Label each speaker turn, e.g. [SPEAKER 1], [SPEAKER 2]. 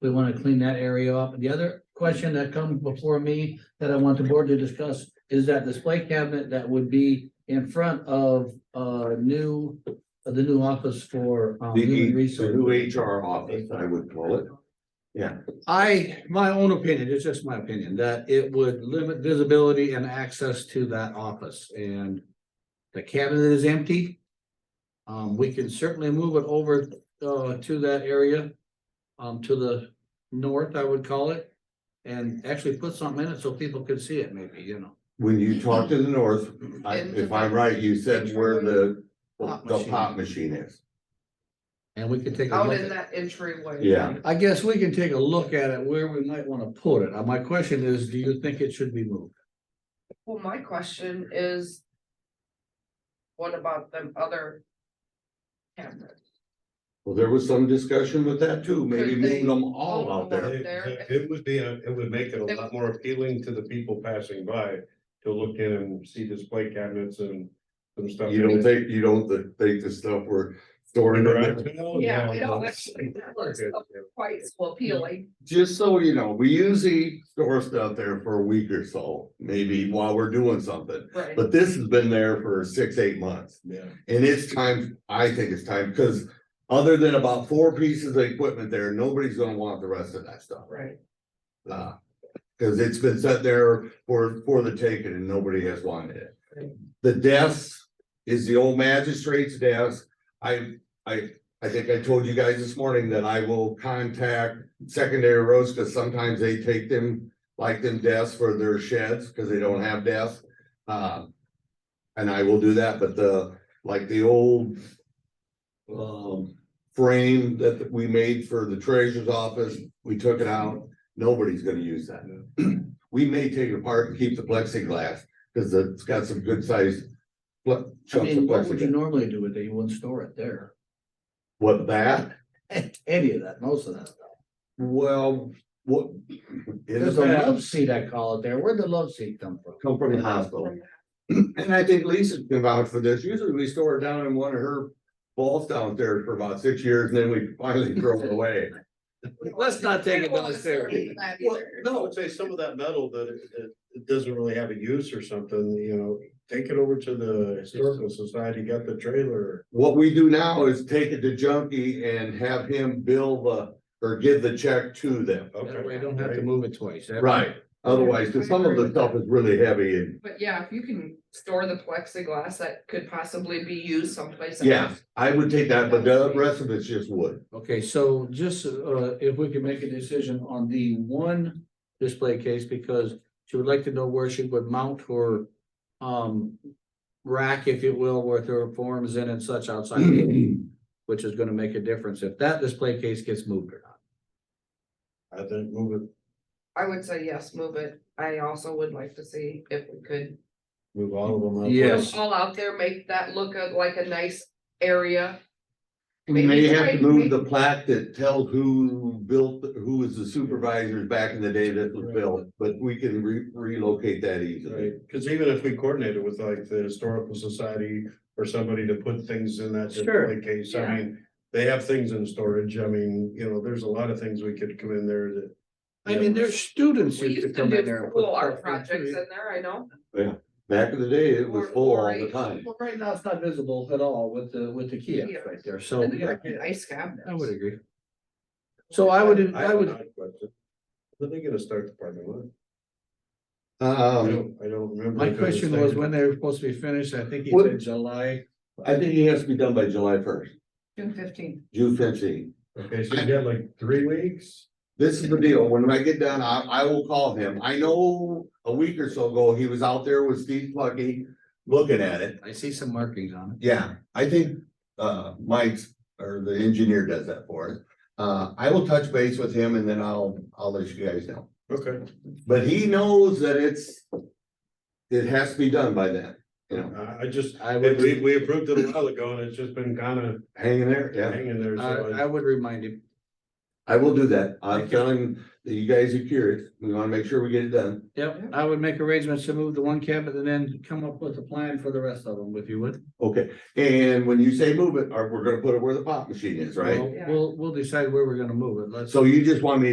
[SPEAKER 1] We want to clean that area up. The other question that comes before me that I want the board to discuss is that display cabinet that would be in front of uh new, the new office for um,
[SPEAKER 2] The
[SPEAKER 1] human
[SPEAKER 2] E- the new
[SPEAKER 1] resources.
[SPEAKER 2] HR office, I would call it.
[SPEAKER 3] I, my own opinion, it's just my opinion, that it would limit visibility and access to that office and the cabinet is empty. Um, we can certainly move it over, uh, to that area, um, to the north, I would call it. And actually put something in it so people could see it maybe, you know.
[SPEAKER 2] When you talk to the north, I-
[SPEAKER 4] And
[SPEAKER 2] if
[SPEAKER 4] the-
[SPEAKER 2] I'm right, you said where the,
[SPEAKER 3] Pop
[SPEAKER 2] the
[SPEAKER 3] machine.
[SPEAKER 2] pop machine is.
[SPEAKER 3] And we could take a
[SPEAKER 4] out
[SPEAKER 3] look
[SPEAKER 4] in
[SPEAKER 3] at,
[SPEAKER 4] that entryway.
[SPEAKER 2] Yeah.
[SPEAKER 3] I guess we can take a look at it where we might wanna put it. Uh, My question is, do you think it should be moved?
[SPEAKER 4] Well, my question is. What about them other? cameras?
[SPEAKER 2] Well, there was some discussion with that too, maybe
[SPEAKER 4] Could
[SPEAKER 2] moving
[SPEAKER 4] they-
[SPEAKER 2] them all
[SPEAKER 4] all
[SPEAKER 2] out there.
[SPEAKER 4] of
[SPEAKER 5] It-
[SPEAKER 4] there.
[SPEAKER 5] It it would be, a- it would make it a lot more appealing to the people passing by to look in and see display cabinets and some stuff.
[SPEAKER 2] You don't think, you don't th- think the stuff we're storing. in there?
[SPEAKER 3] Oh,
[SPEAKER 4] Yeah, we
[SPEAKER 5] No,
[SPEAKER 4] don't
[SPEAKER 5] no.
[SPEAKER 4] actually, that looks quite so appealing.
[SPEAKER 2] Just so you know, we usually store stuff there for a week or so, maybe while we're doing something.
[SPEAKER 4] Right.
[SPEAKER 2] But this has been there for six, eight months.
[SPEAKER 5] Yeah.
[SPEAKER 2] And it's time, I think it's time, because other than about four pieces of equipment there, nobody's gonna want the rest of that stuff.
[SPEAKER 4] Right.
[SPEAKER 2] Uh, cause it's been set there for, for the taking and nobody has wanted it. The desk is the old magistrate's desk. I, I, I think I told you guys this morning that I will contact secondary roads, cause sometimes they take them, like them desks for their sheds, cause they don't have desks. Uh, and I will do that, but the, like the old um, frame that we made for the treasurer's office, we took it out. Nobody's gonna use that. We may take it apart and keep the plexiglass, cause it's got some good sized ple-
[SPEAKER 1] I
[SPEAKER 2] chunks of
[SPEAKER 1] mean, what would you
[SPEAKER 2] plexiglass.
[SPEAKER 1] normally do with it? You wouldn't store it there.
[SPEAKER 2] What that,
[SPEAKER 1] Any of that, most of that. stuff.
[SPEAKER 2] well, what? in the
[SPEAKER 1] There's a
[SPEAKER 2] past,
[SPEAKER 1] love seat, I call it there. Where'd the love seat come from?
[SPEAKER 2] Come from the hospital. And I think Lisa's been vouch for this. Usually we store it down in one of her vaults down there for about six years and then we finally throw it away.
[SPEAKER 3] Let's not take
[SPEAKER 4] I
[SPEAKER 3] it
[SPEAKER 4] don't wanna serve
[SPEAKER 3] downstairs.
[SPEAKER 4] for that
[SPEAKER 5] Well,
[SPEAKER 4] either.
[SPEAKER 5] no, I would say some of that metal that it, it- it doesn't really have a use or something, you know, take it over to the historical society, got the trailer.
[SPEAKER 2] What we do now is take it to Junkie and have him bill the, or give the check to them.
[SPEAKER 3] That way you don't have to move it twice.
[SPEAKER 2] Right, otherwise, 'cause some of the stuff is really heavy and,
[SPEAKER 4] But yeah, if you can store the plexiglass that could possibly be used someplace. else.
[SPEAKER 2] yeah, I would take that, but the rest of it's just wood.
[SPEAKER 3] Okay, so just, uh, if we could make a decision on the one display case, because she would like to know where she would mount her, um, rack, if you will, with her forms in and such outside, which is gonna make a difference if that display case gets moved or not.
[SPEAKER 5] I think move it,
[SPEAKER 4] I would say yes, move it. I also would like to see if we could.
[SPEAKER 5] move all of them. out.
[SPEAKER 3] Yeah.
[SPEAKER 4] put 'em
[SPEAKER 3] Yes.
[SPEAKER 4] All out there, make that look a- like a nice area.
[SPEAKER 2] We may have to move the plaque that tells who built, who was the supervisors back in the day that was built, but we can re- relocate that easily.
[SPEAKER 5] Right, cause even if we coordinated with like the historical society or somebody to put things in that
[SPEAKER 3] Sure.
[SPEAKER 5] display case,
[SPEAKER 4] Yeah.
[SPEAKER 5] I mean. They have things in storage, I mean, you know, there's a lot of things we could come in there that.
[SPEAKER 3] I mean, there's students
[SPEAKER 4] We
[SPEAKER 3] who
[SPEAKER 4] used
[SPEAKER 3] could
[SPEAKER 4] to
[SPEAKER 3] come in there.
[SPEAKER 4] do
[SPEAKER 3] and put
[SPEAKER 4] cool
[SPEAKER 3] stuff
[SPEAKER 4] art
[SPEAKER 3] in
[SPEAKER 4] projects
[SPEAKER 3] too.
[SPEAKER 4] in there, I know.
[SPEAKER 2] Back in the day, it was
[SPEAKER 4] Or-
[SPEAKER 2] full
[SPEAKER 4] or
[SPEAKER 2] all the
[SPEAKER 4] a-
[SPEAKER 2] time.
[SPEAKER 1] Well, right now it's not visible at all with the, with the kiosk
[SPEAKER 4] Kiosk.
[SPEAKER 1] right there, so,
[SPEAKER 4] And
[SPEAKER 1] yeah,
[SPEAKER 4] they're Nice cabinets.
[SPEAKER 3] I would agree. So I would,
[SPEAKER 5] I
[SPEAKER 3] I
[SPEAKER 5] have
[SPEAKER 3] would,
[SPEAKER 5] not, but When are they gonna start the parking lot? I
[SPEAKER 2] Um,
[SPEAKER 5] don't, I don't remember.
[SPEAKER 3] my
[SPEAKER 5] if it
[SPEAKER 3] question was
[SPEAKER 5] there.
[SPEAKER 3] when they were supposed to be finished, I think he
[SPEAKER 2] What-
[SPEAKER 3] said July.
[SPEAKER 2] I think it has to be done by July first,
[SPEAKER 4] June fifteenth.
[SPEAKER 2] June fifteenth.
[SPEAKER 5] Okay, so you got like three weeks?
[SPEAKER 2] This is the deal, when I get done, I, I will call him. I know a week or so ago, he was out there with Steve Plucky looking at it.
[SPEAKER 3] I see some markings on it.
[SPEAKER 2] Yeah, I think, uh, Mike's, or the engineer does that for us. Uh, I will touch base with him and then I'll, I'll let you guys know.
[SPEAKER 5] Okay.
[SPEAKER 2] But he knows that it's, it has to be done by then, you know,
[SPEAKER 5] I, I just,
[SPEAKER 3] I would-
[SPEAKER 5] we, we approved it a while ago and it's just been kinda
[SPEAKER 2] hanging there, yeah.
[SPEAKER 5] hanging there.
[SPEAKER 3] Uh, I,
[SPEAKER 5] so
[SPEAKER 3] I would remind him.
[SPEAKER 2] I will do that. I'm telling that you guys are curious. We wanna make sure we get it done.
[SPEAKER 3] Yep, I would make arrangements to move the one cabinet and then come up with a plan for the rest of them, if you would.
[SPEAKER 2] Okay, and when you say move it, are, we're gonna put it where the pop machine is, right?
[SPEAKER 3] We'll- We'll, we'll decide where we're gonna move it. Let's.
[SPEAKER 2] So you just want me to